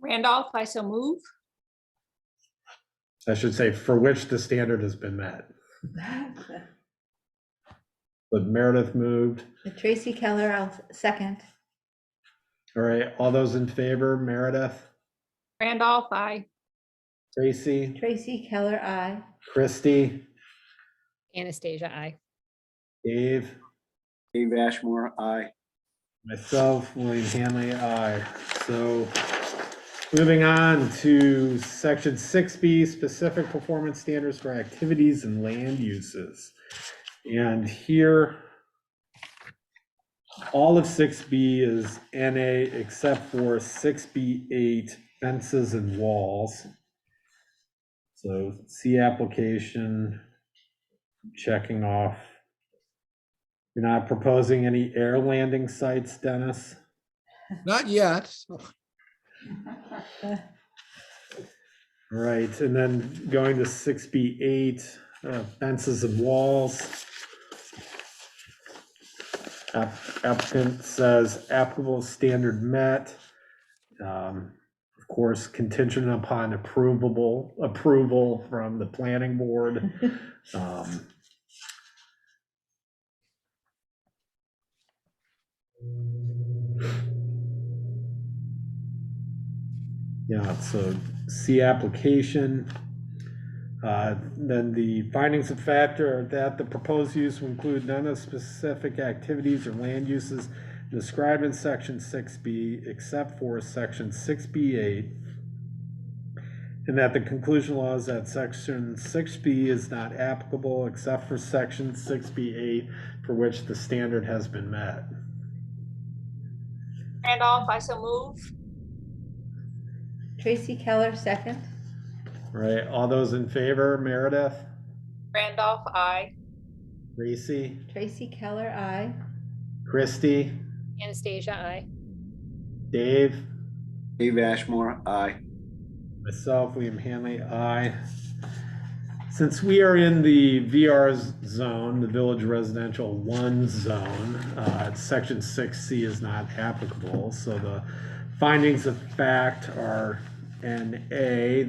Randolph, I so move. I should say for which the standard has been met. But Meredith moved. Tracy Keller, I'll second. All right, all those in favor, Meredith, Randolph, I. Tracy, Tracy Keller, I. Christy, Anastasia, I. Dave, Dave Ashmore, aye. myself, William Hanley, aye. So moving on to section six B, specific performance standards for activities and land uses. And here, all of six B is NA except for six B eight fences and walls. So C application, checking off. You're not proposing any air landing sites, Dennis? Not yet. Right, and then going to six B eight, uh, fences and walls. App- Applicant says applicable standard met. Um, Of course, contingent upon approvable, approval from the planning board. Um, Yeah, so C application. Uh, Then the findings of factor are that the proposed use will include none of specific activities or land uses described in section six B except for section six B eight. And that the conclusion law is that section six B is not applicable except for section six B eight for which the standard has been met. Randolph, I so move. Tracy Keller, second. Right, all those in favor, Meredith, Randolph, I. Reese, Tracy Keller, I. Christie, Anastasia, I. Dave? Dave Ashmore, aye. Myself, William Hanley, aye. Since we are in the VR zone, the Village Residential One Zone, uh, Section 6C is not applicable, so the findings of fact are NA,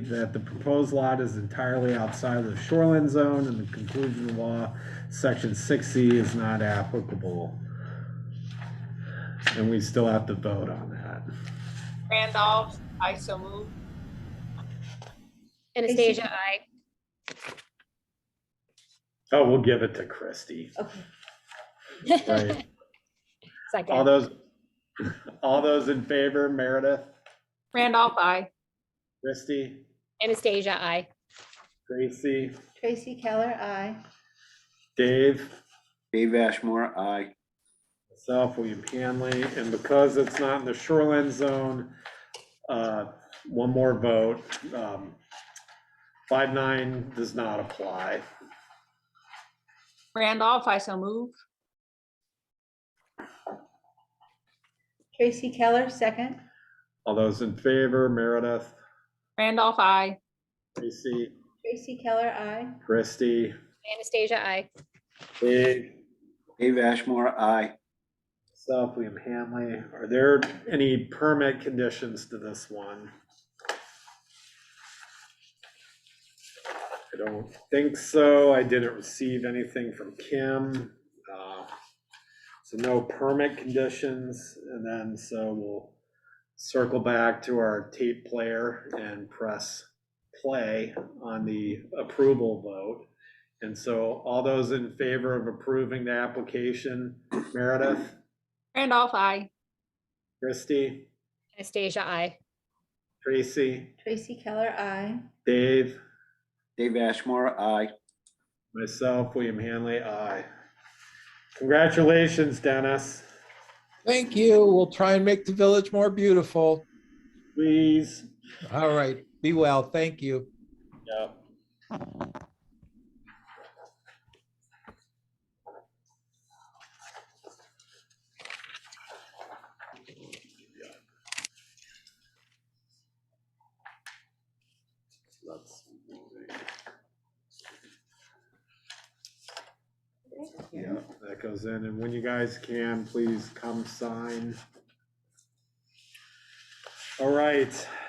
that the proposed lot is entirely outside of the shoreline zone, and the conclusion of law, Section 6C is not applicable. And we still have to vote on that. Randolph, I so move. Anastasia, I. Oh, we'll give it to Christie. Okay. Right. All Second, those, all those in favor, Meredith, Randolph, I. Christie, Anastasia, I. Gracie, Tracy Keller, I. Dave, Dave Ashmore, aye. myself, William Hanley, and because it's not in the shoreline zone, uh, one more vote. um, Five nine does not apply. Randolph, I so move. Tracy Keller, second. All those in favor, Meredith, Randolph, I. Gracie, Tracy Keller, I. Christie, Anastasia, I. Dave, Dave Ashmore, aye. myself, William Hanley. Are there any permit conditions to this one? I don't think so. I didn't receive anything from Kim. uh, So no permit conditions, and then so we'll circle back to our tape player and press play on the approval vote. And so all those in favor of approving the application, Meredith, Randolph, I. Christie, Anastasia, I. Tracy, Tracy Keller, I. Dave, Dave Ashmore, aye. myself, William Hanley, aye. Congratulations, Dennis. Thank you. We'll try and make the village more beautiful. Please. All right. Be well. Thank you. Yeah. That's Yeah, that goes in, and when you guys can, please come sign. All right.